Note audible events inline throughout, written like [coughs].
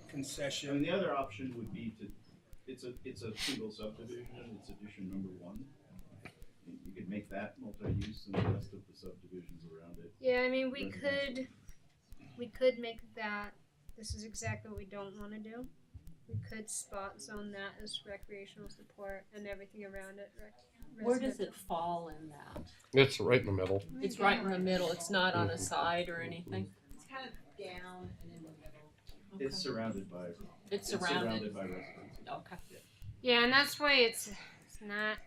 I mean, concession. the other option would be to, it's a, it's a single subdivision, it's addition number one. You- You could make that multi-use and the rest of the subdivisions around it. Yeah, I mean, we Residential. could, we could make that, this is exactly what we don't wanna do. We could spot zone that as recreational support and everything around it rec- residential. Where does it fall in that? It's right in the middle. It's right in the middle, it's not on a Mm-hmm. side or anything? It's kind of down and in the middle. Okay. It's surrounded by, It's it's surrounded, surrounded by residences. okay. Yeah, and that's why it's, it's not.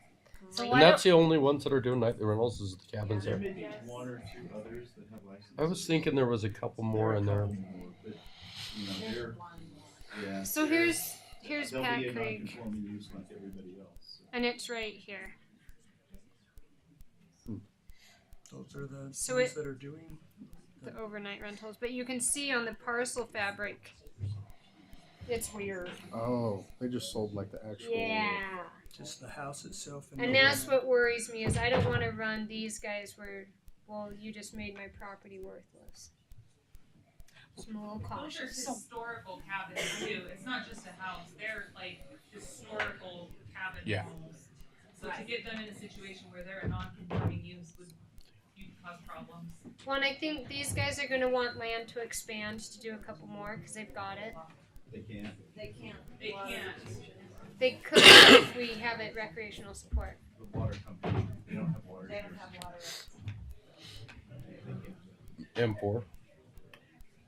So great. Why And that's the only ones that are doing nightly rentals is the cabins There there. may be Yes. one or two others that have licenses. I was thinking there was a couple more in are a there. couple more, but, you know, There's they're- one. yeah, So they're- here's, here's they'll be a Pat Creek, non-conforming use like everybody else. so. and it's right here. Those are the So ones it- that are doing. the overnight rentals, but you can see on the parcel fabric, it's weird. Oh, they just sold like the actual. Just the house itself. And the- that's what worries me is I don't want to run these guys where, well, you just made my property worthless. So I'm a little Those are cautious. historical cabins too. It's not just a house. They're like historical cabin Yeah. homes. So to get them in a situation where they're a non-conforming use would you cause problems. One, I think these guys are going to want land to expand to do a couple more because they've got it. They can't, They can't. They water can't. distribution. They could if we have it recreational support. the water company, they don't have water. They don't here, have water. so They can't, M4.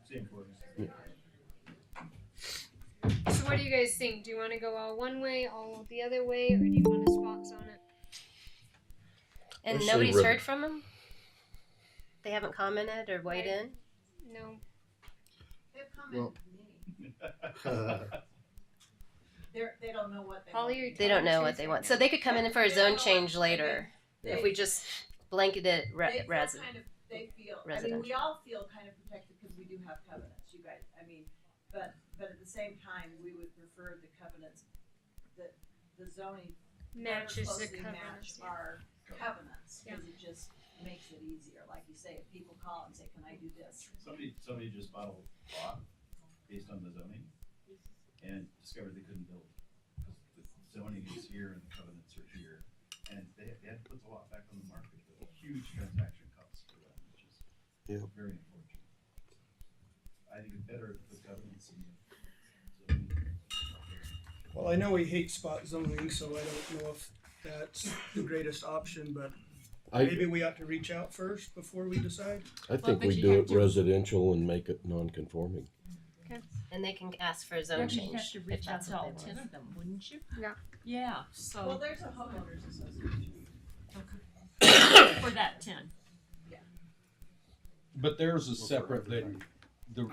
same for us. So what do you guys think? Do you want to go all one way, all the other way, or do you want to spot zone it? Let's And see nobody's where- heard from them? They haven't commented or weighed in? No. They've come Well- in. [laughs] [laughs] They're, they don't know what they Holly, are you They don't know talking what to they us? want. So they could come in for a They don't zone know change what- I mean, later they- if we just blanketed it they re- feel res- kind of, they feel, I mean, we residential. all feel kind of protected because we do have covenants, you guys, I mean, but, but at the same time, we would prefer the covenants, the, the zoning ever matches the closely cover. match our covenants, cause it just makes it easier, like you say, if people call and say, can I do this? Somebody, somebody just bought a lot based on the zoning and discovered they couldn't build. Because the zoning is here and the covenants are here, and they, they had to put the lot back on the market, a huge transaction cost for them, which is Yeah. very unfortunate. I think it's better if the covenants and the zoning. Well, I know we hate spot zoning, so I don't know if that's the greatest option, but I, maybe we ought to reach out first before we decide. I think but we you do have it to- residential and make it non-conforming. and they can ask for a zone change. if that's what they want. of them, wouldn't you? Yeah. Yeah, Well, Um, so there's a homeowners association, [coughs] for that ten. But theirs is separate than the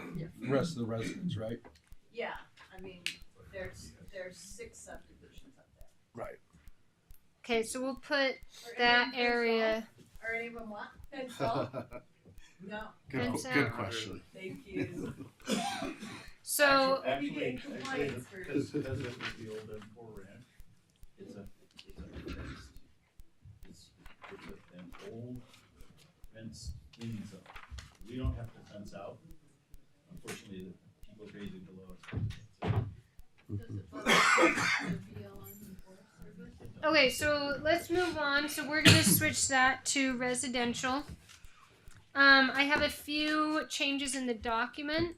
rest of the residents, right? yeah, I mean, there's, there's six subdivisions up there. Okay, so we'll put Are any of that them area. fence wall? Are any of them what? [laughs] Fence wall? good, No, qu- That's, uh, good question. thank you. So Actually, getting actually, complaints for- because, because it was the old M four ranch, it's a, it's a fenced, it's, it's a- an old fenced in zone. We don't have to fence out. Unfortunately, the people grazing below us. have [coughs] Okay, so let's move on. So we're gonna switch that to residential. Um, I have a few changes in the document.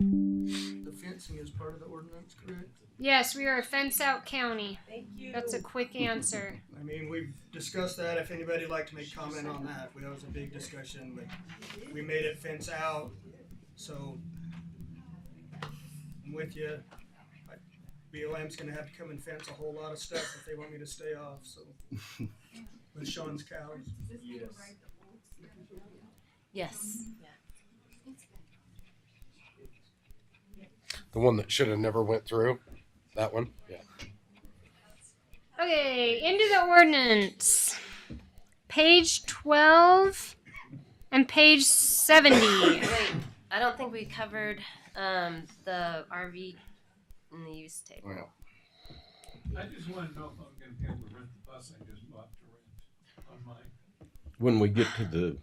The fencing is part of the ordinance, correct? Yes, we are a fence out county. Thank you. That's a quick answer. I mean, we've discussed that. If anybody'd like to make comment on that, that was a big discussion, but we made it fence out, so I'm with you. BLM's gonna have to come and fence a whole lot of stuff if they want me to stay off, so. With Sean's cows. to- Yes. Yes. The one that should have never went through. That one. Yeah. Okay, into the ordinance. Page twelve and page seventy. Wait, I don't think we covered um, the RV and the use table. Well, I just wanna know if I'm gonna be able to rent the bus I just bought to rent on mine. When we get to the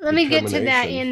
Let me get to that Determination. in